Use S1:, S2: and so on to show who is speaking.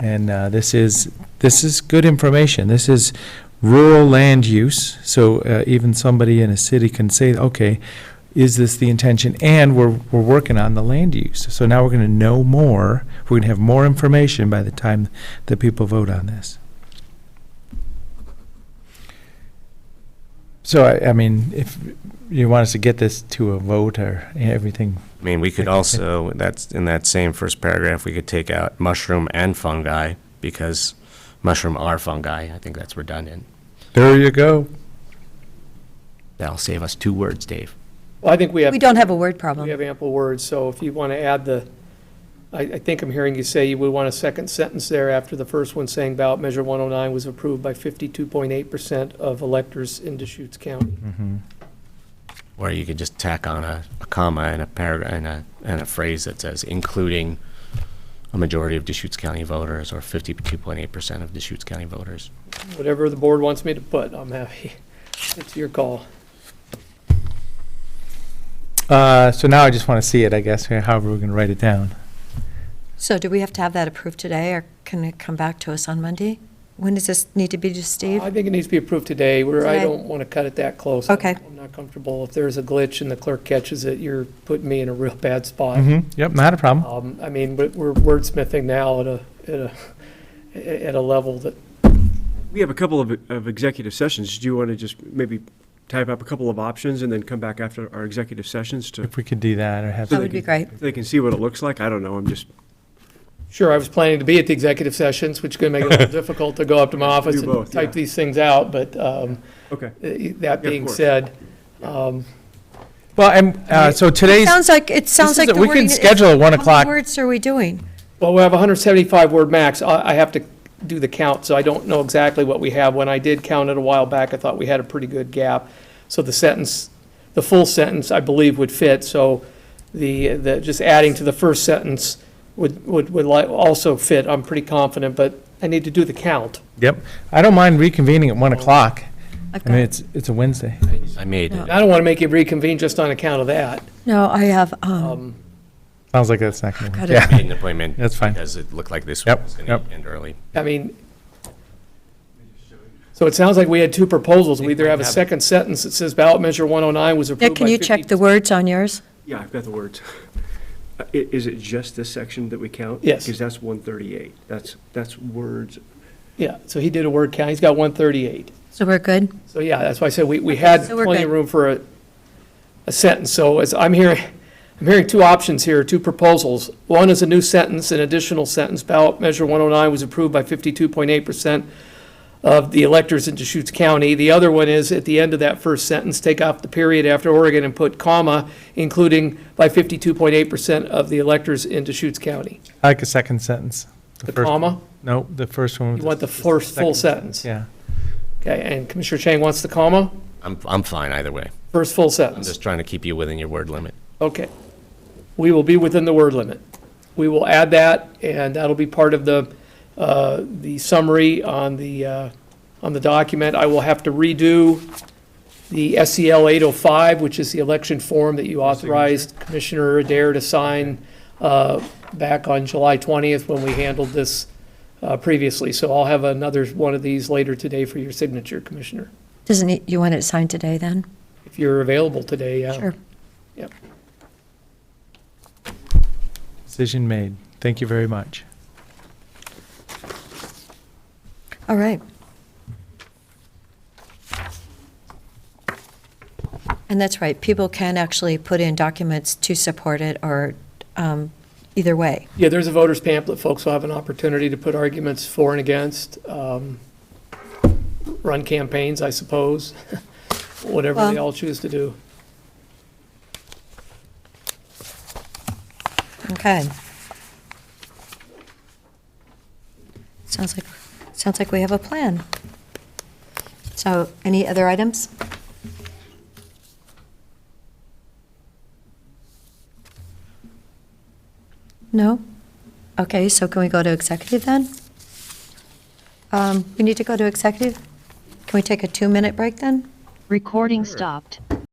S1: And uh, this is, this is good information. This is rural land use, so uh, even somebody in a city can say, okay, is this the intention? And we're, we're working on the land use. So now we're going to know more, we're going to have more information by the time that people vote on this. So I, I mean, if you want us to get this to a vote or everything,
S2: I mean, we could also, that's, in that same first paragraph, we could take out mushroom and fungi, because mushroom are fungi. I think that's redundant.
S1: there you go.
S2: That'll save us two words, Dave.
S3: Well, I think we have,
S4: We don't have a word
S3: we
S4: problem.
S3: have ample words, so if you want to add the, I, I think I'm hearing you say you would want a second sentence there after the first one saying ballot measure 109 was approved by 52.8% of electors in Deschutes County.
S2: Or you could just tack on a, a comma and a paragraph, and a, and a phrase that says, including a majority of Deschutes County voters, or fifty-two point eight percent of Deschutes County voters.
S3: Whatever the board wants me to put, I'm happy. It's your call.
S1: Uh, so now I just want to see it, I guess, or however we're going to write it down.
S4: So do we have to have that approved today, or can it come back to us on Monday? When does this need to be to Steve?
S3: I think it needs to be approved today, where I
S4: Today.
S3: don't want to cut it that close.
S4: Okay.
S3: I'm not comfortable. If there's a glitch and the clerk catches it, you're putting me in a real bad spot.
S1: Mm-hmm, yep, not a problem.
S3: Um, I mean, but we're wordsmithing now at a, at a, at a level that
S5: We have a couple of, of executive sessions. Do you want to just maybe type up a couple of options and then come back after our executive sessions to,
S1: If we could do that or have.
S4: That would be great.
S5: they can see what it looks like? I don't know, I'm just,
S3: Sure, I was planning to be at the executive sessions, which is going to make it a little difficult to go up to my office
S5: Do
S3: and
S5: both, yeah.
S3: type these things out, but um,
S5: okay.
S3: eh, that
S5: Yeah, of
S3: being
S5: course.
S3: said, um,
S1: Well, and, uh, so
S4: It
S1: today's,
S4: sounds like, it sounds
S1: is
S4: like
S1: a-
S4: the
S1: we can
S4: wording is-
S1: schedule at one
S4: How
S1: o'clock.
S4: many words are we doing?
S3: well, we have 175 word max. I I have to do the count, so I don't know exactly what we have. When I did count it a while back, I thought we had a pretty good gap. So the sentence, the full sentence, I believe, would fit, so the, the, just adding to the first sentence would, would, would li- also fit, I'm pretty confident, but I need to do the count.
S1: yep, I don't mind reconvening at one o'clock.
S4: I've
S1: I mean,
S4: got-
S1: it's, it's a Wednesday.
S2: I made
S4: No.
S2: it.
S3: I don't want to make you reconvene just on account of that.
S4: No, I have, um,
S3: Um,
S1: Sounds like that's not going to
S4: Got
S1: work.
S4: it.
S1: Yeah,
S2: Made an appointment.
S1: That's fine.
S2: Because it looked like this
S1: Yep,
S2: one was gonna
S1: yep.
S2: end early.
S3: I mean, so it sounds like we had two proposals. We either have a
S2: Think we have-
S3: second sentence that says ballot measure 109 was approved
S4: Nick,
S3: by
S4: can you check
S3: 50
S4: the words on yours?
S5: Yeah, I've got the words. Uh, i- Is it just this section that we count?
S3: Yes.
S5: Because that's 138. That's, that's words.
S3: Yeah, so he did a word count. He's got 138.
S4: So we're good?
S3: So yeah, that's why I said we, we had
S4: so we're
S3: plenty of
S4: good.
S3: room for a, a sentence. So as I'm hearing, I'm hearing two options here, two proposals. One is a new sentence, an additional sentence. Ballot measure 109 was approved by 52.8% of the electors in Deschutes County. The other one is, at the end of that first sentence, take off the period after Oregon and put comma, including by 52.8% of the electors in Deschutes County.
S1: I like a second sentence.
S3: The
S1: first one.
S3: comma?
S1: No, the first one.
S3: You
S1: was-
S3: want the first full sentence?
S1: Yeah.
S3: Okay, and Commissioner Chang wants the comma?
S2: I'm, I'm fine either way.
S3: First full
S2: I'm
S3: sentence?
S2: just trying to keep you within your word limit.
S3: Okay. We will be within the word limit. We will add that, and that'll be part of the, uh, the summary on the, uh, on the document. I will have to redo the E SEL 805, which is the election form that you authorized Commissioner Adair to sign uh, back on July 20th when we handled this uh, previously. So I'll have another one of these later today for your signature, Commissioner,
S4: Doesn't, it- you want it signed today then?
S3: if you're available today. uh, yeah.
S4: Sure.
S1: Decision made. Thank you very much.
S4: All right. And that's right, people can actually put in documents to support it or, um, either way.
S3: Yeah, there's a voter's pamphlet. Folks will have an opportunity to put arguments for and against, um, run campaigns, I suppose, whatever they
S4: Well-
S3: all choose to do.
S4: Okay. Sounds like, sounds like we have a plan. So any other items? No? Okay, so can we go to executive then? Um, We need to go to executive? Can we take a two-minute break then?
S6: Recording stopped.